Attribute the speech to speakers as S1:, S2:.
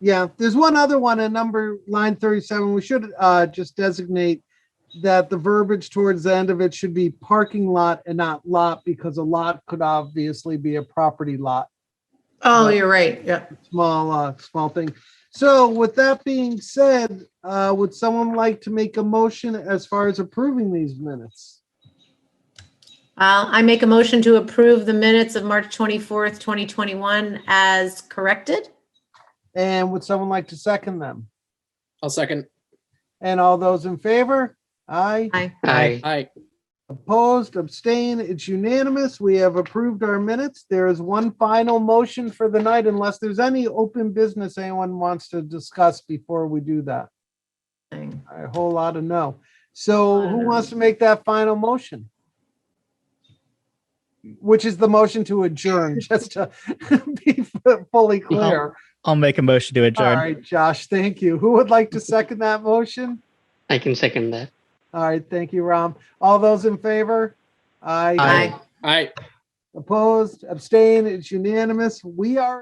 S1: Yeah, there's one other one in number line 37. We should uh, just designate that the verbiage towards the end of it should be parking lot and not lot because a lot could obviously be a property lot,
S2: Oh, you're right. Yeah.
S1: small, uh, small thing. So with that being said, uh, would someone like to make a motion as far as approving these minutes?
S2: Uh, I make a motion to approve the minutes of March 24th, 2021 as corrected.
S1: And would someone like to second them?
S3: I'll second.
S1: And all those in favor? Aye.
S2: Aye.
S4: Aye.
S3: Aye.
S1: Opposed, abstain, it's unanimous. We have approved our minutes. There is one final motion for the night unless there's any open business anyone wants to discuss before we do that. A whole lot of no. So who wants to make that final motion? Which is the motion to adjourn, just to be fully clear.
S5: I'll make a motion to
S1: All
S5: adjourn.
S1: right, Josh, thank you. Who would like to second that motion?
S4: I can second that.
S1: All right, thank you, Ram. All those in favor? Aye.
S2: Aye.
S3: Aye.
S1: Opposed, abstain, it's unanimous. We are